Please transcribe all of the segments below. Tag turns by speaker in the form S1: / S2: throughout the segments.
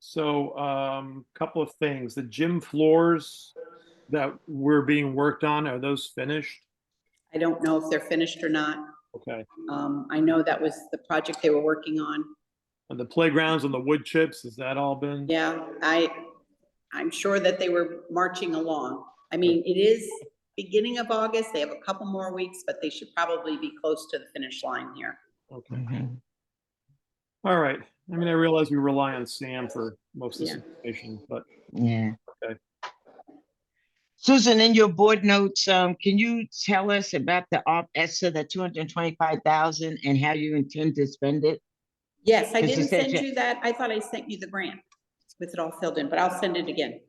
S1: So, um, couple of things, the gym floors that were being worked on, are those finished?
S2: I don't know if they're finished or not.
S1: Okay,
S2: Um, I know that was the project they were working on.
S1: and the playgrounds and the wood chips, has that all been?
S2: Yeah, I, I'm sure that they were marching along. I mean, it is beginning of August. They have a couple more weeks, but they should probably be close to the finish line here.
S1: Okay.
S3: Mm-hmm.
S1: All right. I mean, I realize we rely on Sam for most of this information, but
S3: Yeah.
S1: Okay.
S3: Susan, in your board notes, um, can you tell us about the op, as to the two hundred and twenty-five thousand and how you intend to spend it?
S2: Yes, I
S3: Because you
S2: didn't
S3: said
S2: send
S3: you-
S2: you that. I thought I sent you the grant with it all filled in, but I'll send it again.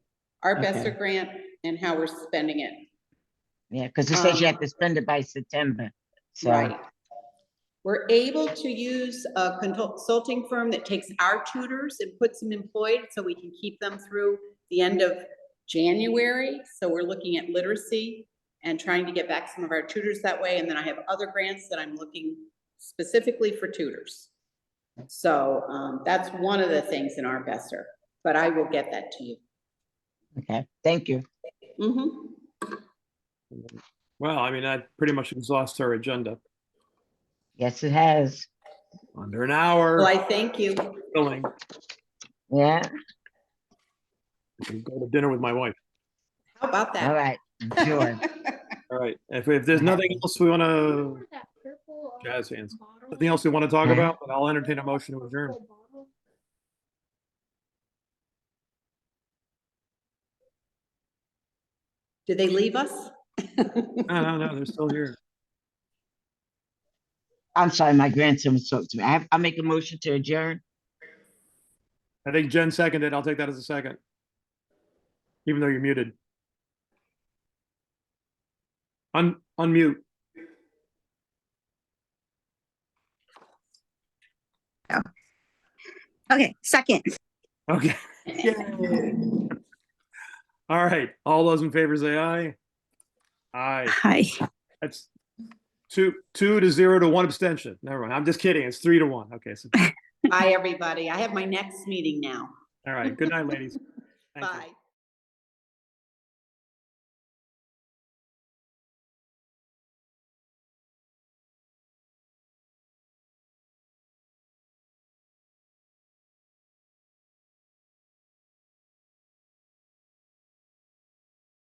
S2: Our
S3: Okay.
S2: Besser grant and how we're spending it.
S3: Yeah, because it says you
S2: Um,
S3: have to spend it by September, so.
S2: Right. We're able to use a consulting firm that takes our tutors and puts them employed so we can keep them through the end of January. So we're looking at literacy and trying to get back some of our tutors that way. And then I have other grants that I'm looking specifically for tutors. So um, that's one of the things in our Besser, but I will get that to you.
S3: Okay, thank you.
S2: Mhm.
S1: well, I mean, that pretty much exhausts our agenda.
S3: Yes, it has.
S1: Under an hour,
S2: Well, I thank you.
S1: filling.
S3: Yeah,
S1: Go to dinner with my wife.
S2: How about
S3: all
S2: that?
S3: right, sure.
S1: All right. If, if there's nothing else we want to,
S4: That purple, uh,
S1: jazz hands.
S4: bottle.
S1: Nothing else we want to talk
S3: Yeah.
S1: about, but I'll entertain a motion to adjourn.
S4: Purple bottle.
S2: Do they leave us?
S1: No, no, no, they're still here.
S3: I'm sorry, my grandson was talking to me. I, I make a motion to adjourn.
S1: I think Jen seconded. I'll take that as a second. Even though you're muted. Un, unmute.
S5: Oh. Okay, second.
S1: Okay. All right. All those in favor say aye. Aye.
S5: Hi.
S1: That's two, two to zero to one abstention. Never mind. I'm just kidding. It's three to one. Okay. So,
S2: Bye, everybody. I have my next meeting now.
S1: all right. Good night, ladies. Thank you.
S2: Bye.